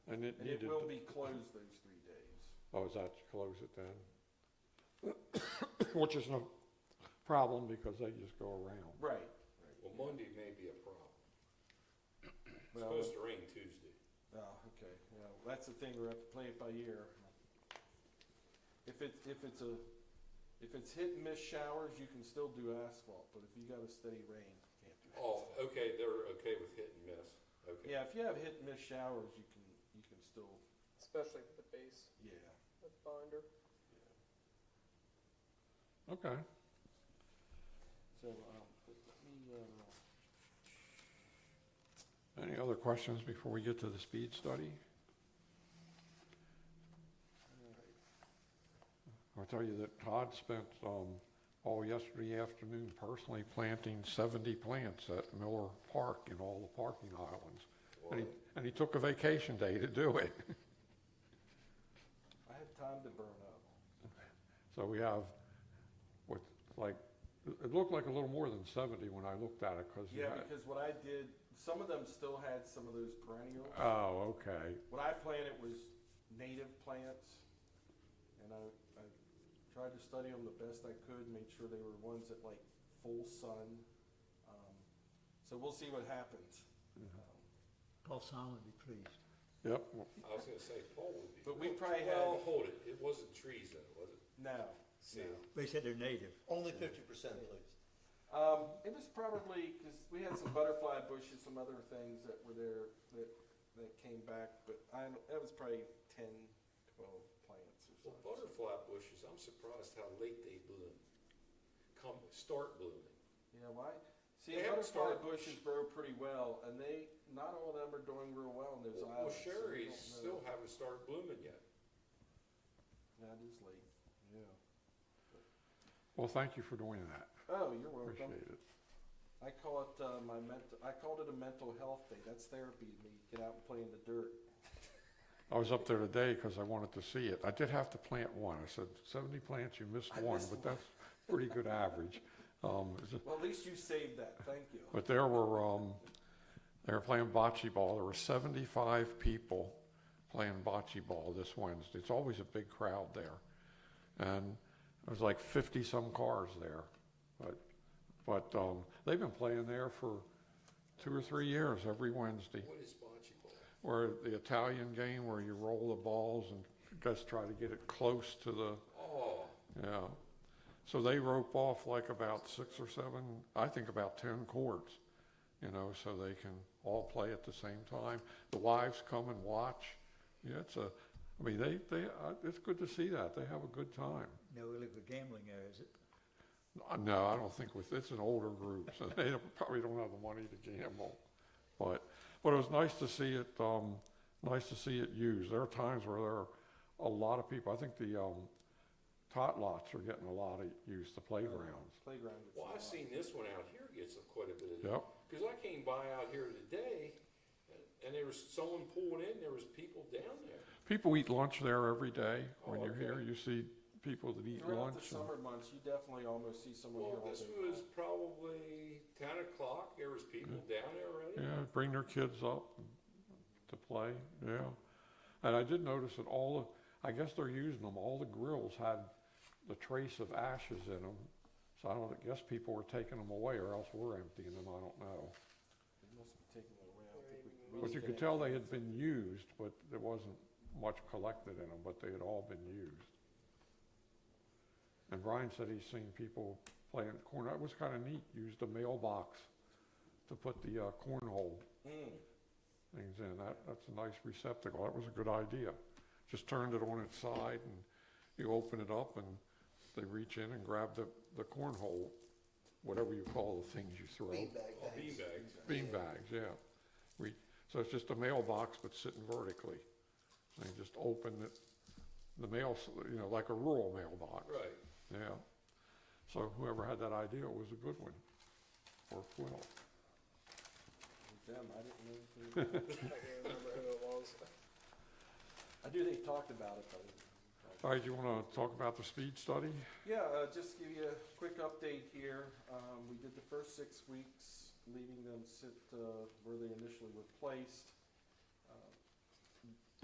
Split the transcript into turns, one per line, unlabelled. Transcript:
it
And it
needed,
will
to-
be closed those three days.
oh, is that to close it then? Which is no problem because they just go around.
Right.
Well, Monday may be a problem. It's
Well,
supposed to rain Tuesday.
Oh, okay, well, that's the thing, we have to play it by ear. If it, if it's a, if it's hit and miss showers, you can still do asphalt, but if you got a steady rain, you can't do
Oh,
asphalt.
okay, they're okay with hit and miss, okay.
Yeah, if you have hit and miss showers, you can, you can still,
especially with the base,
yeah.
with binder.
Okay,
So, um, but let me, uh,
any other questions before we get to the speed study?
all right.
I'll tell you that Todd spent, um, all yesterday afternoon personally planting seventy plants at Miller Park in all the parking islands. And he, and he took a vacation day to do it.
I had time to burn up.
So we have, what, like, it looked like a little more than seventy when I looked at it, cause. you
Yeah,
had-
because what I did, some of them still had some of those perennials.
Oh, okay,
What I planted was native plants, and I, I tried to study them the best I could, made sure they were ones that like full sun. Um, so we'll see what happens. Um,
Paul Simon would be pleased.
yep,
I was gonna say Paul would be.
But we probably
Well,
had-
hold it, it wasn't trees though, was it?
No,
See,
They said they're native.
Only fifty percent, please.
um, it was probably because we had some butterfly bushes, some other things that were there that that came back, but I don't- that was probably 10, 12 plants or
well,
something.
butterfly bushes, I'm surprised how late they bloom. Come, start blooming.
Yeah, why? See,
They haven't
butterfly
started-
bushes grow pretty well, and they, not all of them are doing real well in those
Well,
islands. so we
Sherry's
don't know.
still haven't started blooming yet.
That is late, yeah.
well, thank you for doing that,
Oh, you're welcome.
appreciate it.
I call it, uh, my mental, I called it a mental health day. That's therapy to me. Get out and play in the dirt.
I was up there today because I wanted to see it. I did have to plant one. I said, seventy plants, you missed
I
one,
missed
but
one.
that's pretty good average. Um, it's-
Well, at least you saved that. Thank you.
But there were, um, they were playing bocce ball. There were seventy-five people playing bocce ball this Wednesday. It's always a big crowd there. And there was like fifty-some cars there. But, but, um, they've been playing there for two or three years, every Wednesday.
What is bocce ball?
Or the Italian game where you roll the balls and just try to get it close to the,
Oh,
yeah. So they rope off like about six or seven, I think about ten courts, you know, so they can all play at the same time. The wives come and watch. Yeah, it's a, I mean, they, they, uh, it's good to see that. They have a good time.
No illegal gambling there, is it?
Uh, No, I don't think with, it's an older group, so they don't- probably don't have the money to gamble. But, but it was nice to see it, um, nice to see it used. There are times where there are a lot of people, I think the, um, tot lots are getting a lot of use, the playgrounds.
Playground. gets
well,
a
I've
lot.
seen this one out here gets quite a bit of.
Yep,
Because I came by out here today, and there was someone pulling in, there was people down there.
people eat lunch there every day. When
Oh,
you're here,
okay.
you see people that eat
Throughout the
lunch. and-
summer months, you definitely almost see someone here
Well,
all
this
day
was
long.
probably ten o'clock, there was people down there already.
Yeah, bring their kids up to play, yeah. And I did notice that all the, I guess they're using them, all the grills had the trace of ashes in them. So I don't, I guess people were taking them away or else we're emptying them, I don't know.
They must be taking it away. I don't think we can
But
really
you
get
could
in.
tell they had been used, but there wasn't much collected in them, but they had all been used. And Brian said he's seen people playing corn, that was kinda neat, used a mailbox to put the, uh, cornhole
Mm.
things in. That, that's a nice receptacle. That was a good idea. Just turned it on its side and you open it up and they reach in and grab the, the cornhole, whatever you call the things you throw.
Beanbag
Oh,
things.
beanbags.
Beanbags, yeah. Re, so it's just a mailbox but sitting vertically. And you just open it, the mail, s- you know, like a rural mailbox.
Right.
Yeah. So whoever had that idea was a good one. Or well.
With them, I didn't know anything about it.
I can't remember who it was.
I do, they talked about it, but.
All right, you wanna talk about the speed study?
Yeah, uh, just give you a quick update here. Um, we did the first six weeks, leaving them sit, uh, where they initially were placed.